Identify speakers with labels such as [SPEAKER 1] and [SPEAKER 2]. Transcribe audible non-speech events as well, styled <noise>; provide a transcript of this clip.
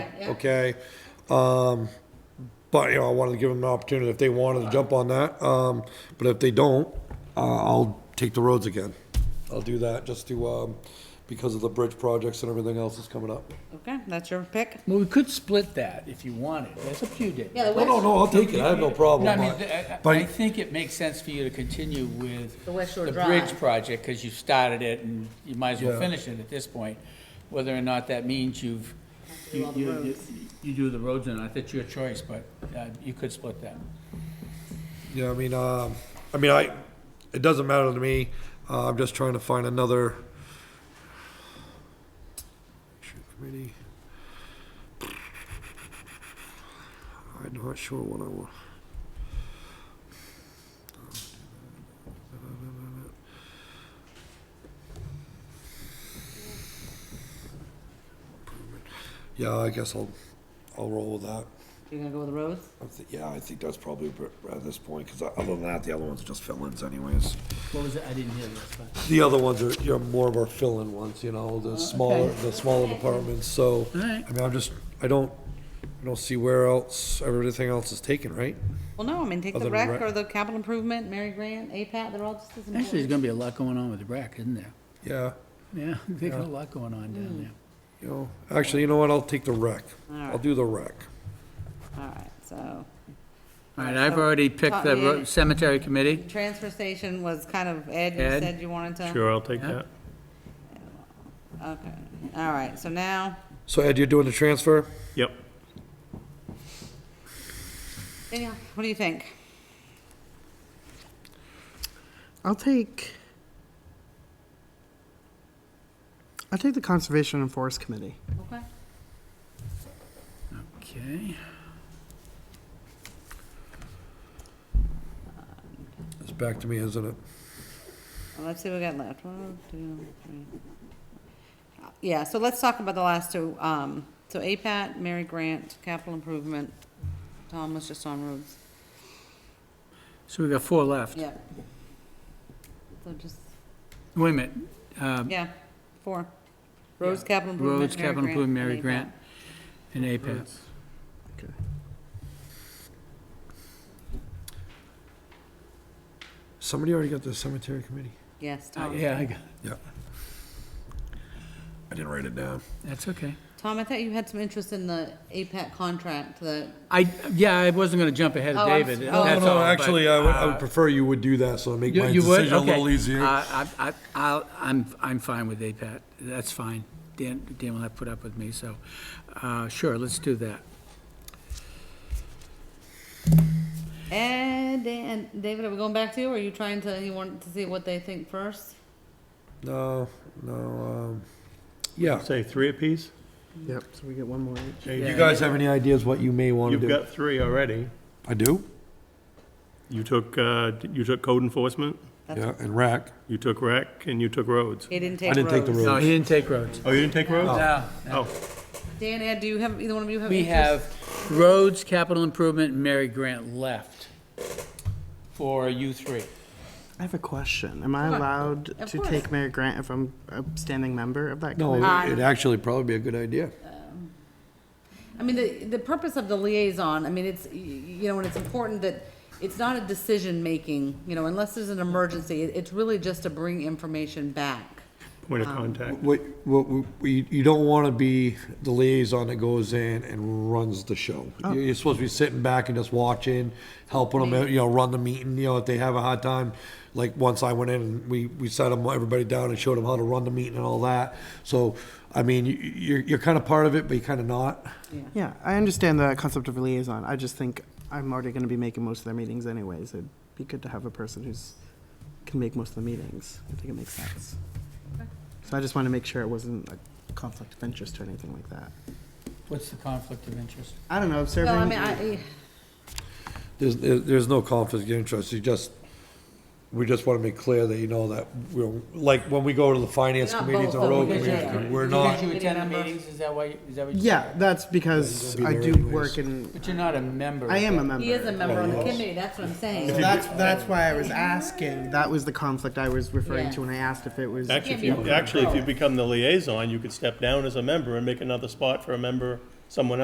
[SPEAKER 1] yeah.
[SPEAKER 2] okay? Um, but, you know, I wanted to give them an opportunity if they wanted to jump on that. Um, but if they don't, uh, I'll take the roads again. I'll do that just to, um, because of the bridge projects and everything else that's coming up.
[SPEAKER 1] Okay, that's your pick?
[SPEAKER 3] Well, we could split that if you wanted. That's up to you, Dave.
[SPEAKER 1] Yeah,
[SPEAKER 2] No,
[SPEAKER 1] the
[SPEAKER 2] no,
[SPEAKER 1] West,
[SPEAKER 2] no, I'll take it. I have no problem.
[SPEAKER 3] No, I mean,
[SPEAKER 2] but-
[SPEAKER 3] I- I- I
[SPEAKER 2] But,
[SPEAKER 3] think it makes sense for you to continue with.
[SPEAKER 1] The West Shore
[SPEAKER 3] The bridge
[SPEAKER 1] Drive.
[SPEAKER 3] project, because you've started it and you might as well
[SPEAKER 2] Yeah.
[SPEAKER 3] finish it at this point. Whether or not that means you've,
[SPEAKER 1] do
[SPEAKER 3] you,
[SPEAKER 1] all the
[SPEAKER 3] you, you-
[SPEAKER 1] roads.
[SPEAKER 3] you do the roads or not, that's your choice, but uh, you could split that.
[SPEAKER 2] yeah, I mean, um, I mean, I, it doesn't matter to me. Uh, I'm just trying to find another. Shoot, committee. I'm not sure what I want. Yeah, I guess I'll, I'll roll with that.
[SPEAKER 1] you're gonna go with the roads?
[SPEAKER 2] I thi- Yeah, I think that's probably a bit- at this point, because other than that, the other ones are just fill-ins anyways.
[SPEAKER 3] What was it? I didn't hear that.
[SPEAKER 2] The other ones are, you know, more of our fill-in ones, you know,
[SPEAKER 3] Oh,
[SPEAKER 2] the smaller, the smaller departments, so.
[SPEAKER 3] Alright.
[SPEAKER 2] I mean, I'm just, I don't, I don't see where else, everything else is taken, right?
[SPEAKER 1] Well, no, I mean, take
[SPEAKER 2] Other
[SPEAKER 1] the
[SPEAKER 2] than rec.
[SPEAKER 1] rec or the capital improvement, Mary Grant, APAT, they're all just as
[SPEAKER 3] Actually, there's
[SPEAKER 1] important.
[SPEAKER 3] gonna be a lot going on with the rec, isn't there?
[SPEAKER 2] Yeah,
[SPEAKER 3] Yeah, <laughs> they got a lot going on down
[SPEAKER 1] Hmm.
[SPEAKER 3] there.
[SPEAKER 2] you know, actually, you know what, I'll take the rec. I'll
[SPEAKER 1] Alright.
[SPEAKER 2] do the rec.
[SPEAKER 1] All right, so,
[SPEAKER 3] All right, I've already picked the ro- cemetery committee.
[SPEAKER 1] transfer station was kind of, Ed, you
[SPEAKER 3] Ed?
[SPEAKER 1] said you wanted to?
[SPEAKER 4] Sure, I'll take
[SPEAKER 3] Yeah.
[SPEAKER 4] that.
[SPEAKER 1] Okay, all right, so now,
[SPEAKER 2] So Ed, you're doing the transfer?
[SPEAKER 4] Yep.
[SPEAKER 1] Danielle, what do you think?
[SPEAKER 5] I'll take. I'll take the Conservation and Forest Committee.
[SPEAKER 1] Okay.
[SPEAKER 3] Okay.
[SPEAKER 2] It's back to me, isn't it?
[SPEAKER 1] Well, Let's see what we got left. One, two, three. Yeah, so let's talk about the last two. Um, so APAT, Mary Grant, capital improvement. Tom was just on roads.
[SPEAKER 3] So we got four left.
[SPEAKER 1] Yeah. So just,
[SPEAKER 3] Wait a minute. um,
[SPEAKER 1] yeah, four. Roads, capital improvement.
[SPEAKER 3] Roads,
[SPEAKER 1] Mary
[SPEAKER 3] capital improvement, Mary
[SPEAKER 1] and
[SPEAKER 3] Grant, and APAT.
[SPEAKER 5] Okay.
[SPEAKER 2] Somebody already got the cemetery committee?
[SPEAKER 1] APAT. Yes,
[SPEAKER 3] Uh,
[SPEAKER 1] Tom.
[SPEAKER 3] Yeah, I got,
[SPEAKER 2] Yeah. I didn't write it down.
[SPEAKER 3] that's okay.
[SPEAKER 1] Tom, I thought you had some interest in the APAT contract, the,
[SPEAKER 3] I, yeah, I wasn't gonna jump ahead
[SPEAKER 1] Oh,
[SPEAKER 3] of
[SPEAKER 1] I'm
[SPEAKER 3] David.
[SPEAKER 1] s-
[SPEAKER 2] No,
[SPEAKER 1] Oh,
[SPEAKER 3] that's
[SPEAKER 2] no,
[SPEAKER 3] all, but,
[SPEAKER 2] actually, I would, I would
[SPEAKER 3] uh,
[SPEAKER 2] prefer you would do that, so I make
[SPEAKER 3] You
[SPEAKER 2] my
[SPEAKER 3] you would?
[SPEAKER 2] decision a little
[SPEAKER 3] Okay.
[SPEAKER 2] easier.
[SPEAKER 3] Uh, I, I, I'll, I'm, I'm fine with APAT. That's fine. Dan, Dan will have put up with me, so, uh, sure, let's do that.
[SPEAKER 1] and, and, eh, David, are we going back to you? Or are you trying to, you want to see what they think first?
[SPEAKER 2] No, no, um, yeah.
[SPEAKER 4] Say three apiece?
[SPEAKER 5] Yep, so we get one more each.
[SPEAKER 2] You
[SPEAKER 3] Yeah.
[SPEAKER 2] guys have any ideas what you may want to
[SPEAKER 4] You've
[SPEAKER 2] do?
[SPEAKER 4] got three already.
[SPEAKER 2] I do,
[SPEAKER 4] You took, uh, you took code enforcement,
[SPEAKER 2] yeah, and rack.
[SPEAKER 4] you took rec, and you took roads.
[SPEAKER 1] He didn't
[SPEAKER 2] I
[SPEAKER 1] take roads.
[SPEAKER 2] didn't take the
[SPEAKER 3] No,
[SPEAKER 2] roads.
[SPEAKER 3] he didn't take roads.
[SPEAKER 4] Oh, you didn't take roads?
[SPEAKER 3] No.
[SPEAKER 4] Oh,
[SPEAKER 1] Dan, Ed, do you have, either one of you have
[SPEAKER 3] We
[SPEAKER 1] interest?
[SPEAKER 3] have roads, capital improvement, and Mary Grant left for you three.
[SPEAKER 5] I have a question. Am I
[SPEAKER 1] Sure.
[SPEAKER 5] allowed
[SPEAKER 1] Of
[SPEAKER 5] to
[SPEAKER 1] course.
[SPEAKER 5] take Mayor Grant if I'm a standing member of that
[SPEAKER 2] No,
[SPEAKER 5] committee?
[SPEAKER 1] Uh,
[SPEAKER 2] it'd actually probably be a good idea.
[SPEAKER 1] I mean, the, the purpose of the liaison, I mean, it's, y- you know, and it's important that it's not a decision-making, you know, unless there's an emergency, it- it's really just to bring information back.
[SPEAKER 4] point of
[SPEAKER 3] Um,
[SPEAKER 4] contact.
[SPEAKER 2] What, what, you, you don't want to be the liaison that goes in and runs the show. You're you're supposed to be sitting back and just watching, helping them, you know, run the meeting, you know, if they have a hard time. Like, once I went in and we, we sat them, everybody down and showed them how to run the meeting and all that. So, I mean, you, you're, you're kind of part of it, but you're kind of not.
[SPEAKER 5] Yeah, I understand the concept of liaison. I just think I'm already going to be making most of their meetings anyways. It'd be good to have a person who's, can make most of the meetings. I think it makes sense. So I just want to make sure it wasn't a conflict of interest or anything like that.
[SPEAKER 3] What's the conflict of interest?
[SPEAKER 5] I don't know, serving.
[SPEAKER 1] Well, I mean, I,
[SPEAKER 2] There's, there- there's no conflict of interest, you just, we just want to make clear that you know that, we're, like, when we go to the finance
[SPEAKER 1] We're not
[SPEAKER 2] committees
[SPEAKER 1] both,
[SPEAKER 2] and
[SPEAKER 1] though,
[SPEAKER 2] road
[SPEAKER 1] because
[SPEAKER 2] committees,
[SPEAKER 1] you're-
[SPEAKER 2] we're
[SPEAKER 3] Because
[SPEAKER 2] not,
[SPEAKER 3] you attend the
[SPEAKER 1] Committee member.
[SPEAKER 3] meetings, is that why, you- is that what you?
[SPEAKER 5] Yeah, that's because
[SPEAKER 2] Yeah,
[SPEAKER 5] I
[SPEAKER 2] you're gonna be
[SPEAKER 5] do
[SPEAKER 2] there
[SPEAKER 5] work
[SPEAKER 2] anyways.
[SPEAKER 5] in,
[SPEAKER 3] But you're not a member.
[SPEAKER 5] I am a
[SPEAKER 3] but-
[SPEAKER 5] member.
[SPEAKER 1] he is a member of the committee, that's what I'm
[SPEAKER 5] So
[SPEAKER 1] saying.
[SPEAKER 5] That's, that's why I was asking, that was the conflict I was referring to when I asked if it was.
[SPEAKER 4] Actually, if
[SPEAKER 1] Can't
[SPEAKER 4] you,
[SPEAKER 1] be
[SPEAKER 4] actually, if you
[SPEAKER 1] controlled.
[SPEAKER 4] become the liaison, you could step down as a member and make another spot for a member, someone else.